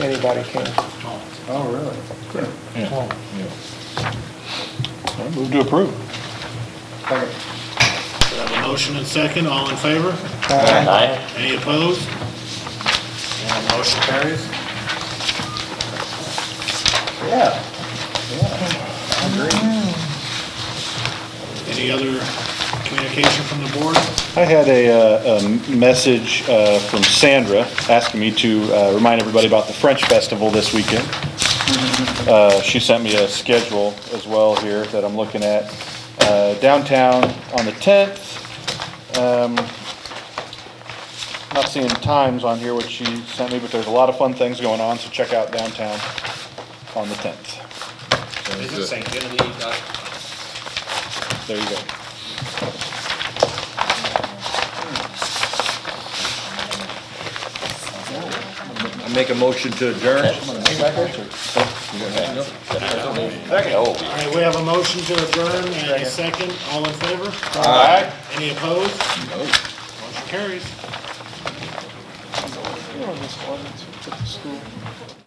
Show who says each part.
Speaker 1: Anybody can.
Speaker 2: Oh, really?
Speaker 3: I Move to approve.
Speaker 2: Second.
Speaker 4: We have a motion and second, all in favor?
Speaker 5: Aye.
Speaker 4: Any opposed? And motion carries.
Speaker 2: Yeah, yeah,
Speaker 4: Any other communication from the board?
Speaker 3: I had a, uh, a message uh, from Sandra asking me to uh, remind everybody about the French Festival this weekend. Uh, She sent me a schedule as well here that I'm looking at. Uh, Downtown on the 10th. Um, Not seeing times on here, which she sent me, but there's a lot of fun things going on, so check out downtown on the 10th.
Speaker 4: Is it St. Genevieve? uh,
Speaker 3: There you go.
Speaker 6: I make a motion to adjourn.
Speaker 4: All right, we have a motion to adjourn and a second, all in favor?
Speaker 6: Aye.
Speaker 4: Any opposed? No. Motion carries.
Speaker 1: You know, this ordinance, you put the school.